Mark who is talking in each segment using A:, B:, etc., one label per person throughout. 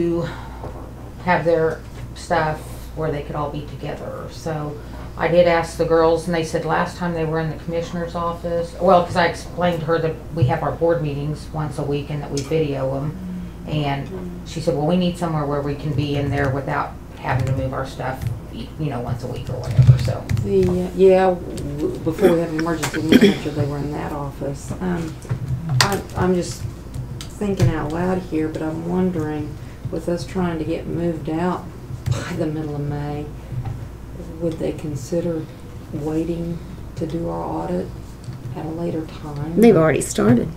A: to have their stuff where they could all be together. So I did ask the girls, and they said last time they were in the commissioner's office, well, because I explained to her that we have our board meetings once a week and that we video them. And she said, well, we need somewhere where we can be in there without having to move our stuff, you know, once a week or whatever, so.
B: The, uh, yeah, w- before we had an emergency manager, they were in that office. Um, I, I'm just thinking out loud here, but I'm wondering, with us trying to get moved out by the middle of May, would they consider waiting to do our audit at a later time?
C: They've already started.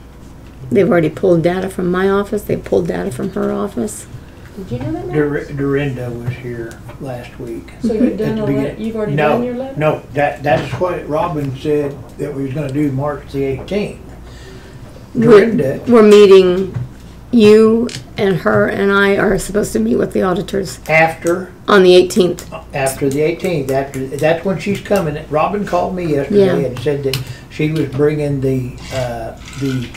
C: They've already pulled data from my office, they pulled data from her office.
B: Did you know that?
D: Dur-
B: Max?
D: Dorinda was here last week.
B: So you've
D: At the
B: done a
D: beginning-
B: letter, you've already
D: No,
B: done your letter?
D: No, that, that's what Robin said that we was gonna do March the eighteenth.
C: We're-
D: Dorinda,
C: We're meeting, you and her and I are supposed to meet with the auditors
D: after,
C: on the eighteenth.
D: after the eighteenth, after, that's when she's coming. Robin called me
C: Yeah.
D: yesterday and said that she was bringing the, uh, the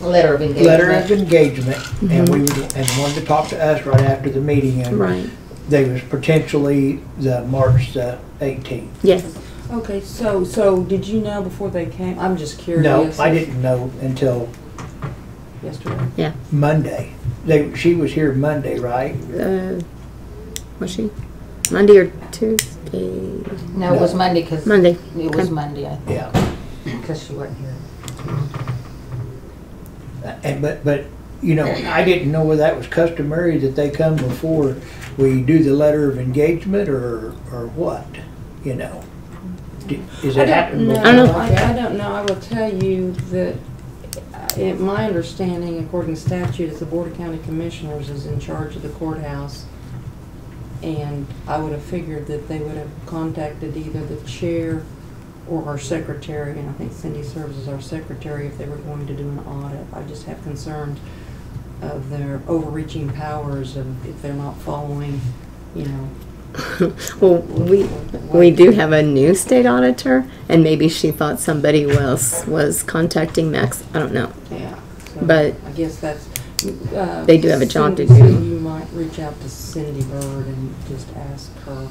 A: Letter of engagement.
D: letter of engagement and we,
B: Mm-hmm.
D: would- and wanted to talk to us right after the meeting and
C: Right,
D: they was potentially the March the eighteenth.
C: yes.
B: Okay, so, so did you know before they came? I'm just
D: No,
B: curious.
D: I didn't know until
B: Yesterday.
D: Monday. They, she was here Monday, right?
C: Uh, Was she, Monday or Tuesday?
A: No, it was Monday, because it
C: Monday.
A: was Monday, I think,
D: Yeah.
A: because she wasn't here.
D: And, but, but, you know, I didn't know whether that was customary that they come before we do the letter of engagement or, or what, you know? Do- Is
B: I
D: it
B: don't
D: happening?
B: know.
D: before
C: I don't know.
D: like
B: I, I
D: that?
B: don't know. I will tell you that, uh, it, my understanding, according to statute, is the Board of County Commissioners is in charge of the courthouse. And I would have figured that they would have contacted either the chair or our secretary, and I think Cindy serves as our secretary if they were going to do an audit. I just have concerns of their overreaching powers of if they're not following, you know.
C: Well, we, we do have a new state auditor, and maybe she thought somebody else was contacting Max, I don't know.
B: Yeah. so
C: But-
B: I guess that's. uh,
C: They do have a job to
B: Cindy-
C: do.
B: You might reach out to Cindy Bird and just ask her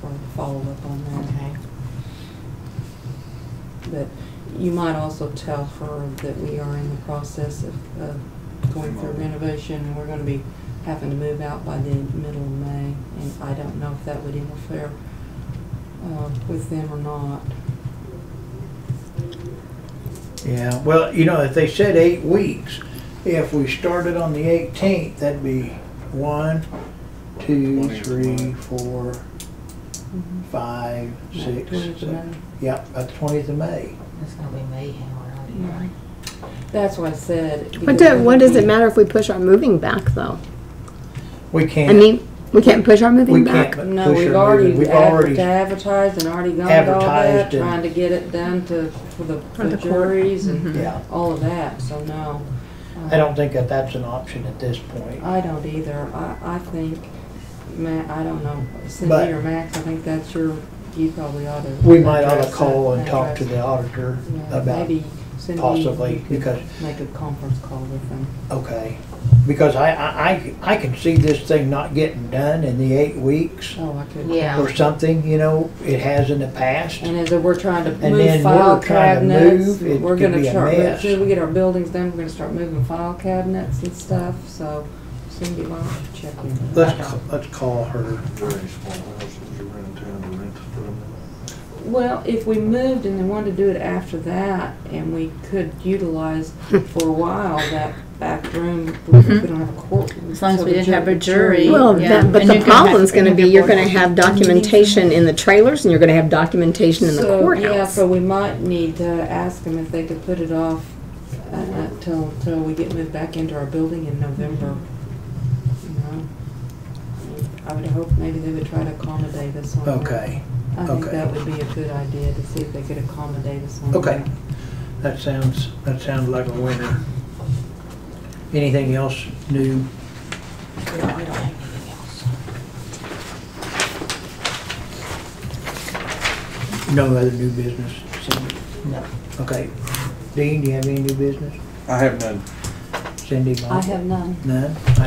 B: for a follow-up on that. But you might also tell her that we are in the process of, of going through renovation and we're gonna be having to move out by the middle of May. And I don't know if that would interfere, uh, with them or not.
D: Yeah, well, you know, if they said eight weeks, if we started on the eighteenth, that'd be one, two, three, four,
B: Mm-hmm.
D: five, six,
B: Towards May.
D: seven. Yep, about the twentieth of May.
A: It's gonna be mayhem around here.
B: That's what I said.
C: What do, what does it matter if we push our moving back, though?
D: We can't.
C: I mean, we can't push our
D: We
C: moving
D: can't.
C: back.
D: but
B: No,
D: push
B: we've
D: her
B: already
D: moving. We've
B: adver-
D: already,
B: advertised and already gone to all that,
D: Advertised and-
B: trying to get it done to, for the
C: For
B: the
C: the court.
B: juries and
D: Mm-hmm. yeah.
B: all of that, so no. Uh,
D: I don't think that that's an option at this point.
B: I don't either. I, I think, Ma, I don't know,
D: But-
B: Cindy or Max, I think that's your, you probably ought to.
D: We might ought to
B: address
D: call
B: that-
D: and talk to
B: address-
D: the auditor
B: yeah,
D: about,
B: Maybe Cindy,
D: possibly,
B: you could
D: because-
B: make a conference call with them.
D: okay. Because I, I, I- I can see this thing not getting done in the eight weeks
B: Oh, I could.
A: Yeah,
D: or something, you know, it has in the past.
B: And as we're trying to
D: And
B: move
D: then
B: file
D: we're trying to
B: cabinets,
D: move, it
B: we're
D: could
B: gonna
D: be a
B: start, as
D: mess.
B: soon as we get our buildings done, we're gonna start moving file cabinets and stuff, so Cindy, why don't you check in?
D: Let's, ca- let's call her.
E: very small houses around town to rent from.
B: Well, if we moved and they wanted to do it after that, and we could utilize for a while that back room, we don't have a courtroom.
F: As long as
B: so
F: we
B: the
F: didn't have a
B: the
F: jury.
C: Well,
F: Yeah.
C: that, but
F: And
C: the
F: you're gonna have-
C: problem's gonna
F: and
C: be,
F: your
C: you're gonna
F: board-
C: have documentation in the trailers, and you're gonna have documentation in the
B: So, Yeah,
C: courthouse.
B: so we might need to ask them if they could put it off uh, until, until we get moved back into our building in November. You know, I would hope maybe they would try to accommodate us on that.
D: Okay,
B: I think
D: okay.
B: that would be a good idea to see if they could accommodate us on that.
D: Okay. that sounds, that sounds like a winner. Anything else new?
A: we don't, we don't have anything else.
D: No other new business? Cindy?
A: No.
D: Okay. Dean, do you have any new business?
E: I have none.
D: Cindy?
B: I
D: Mike?
B: have none.
D: None?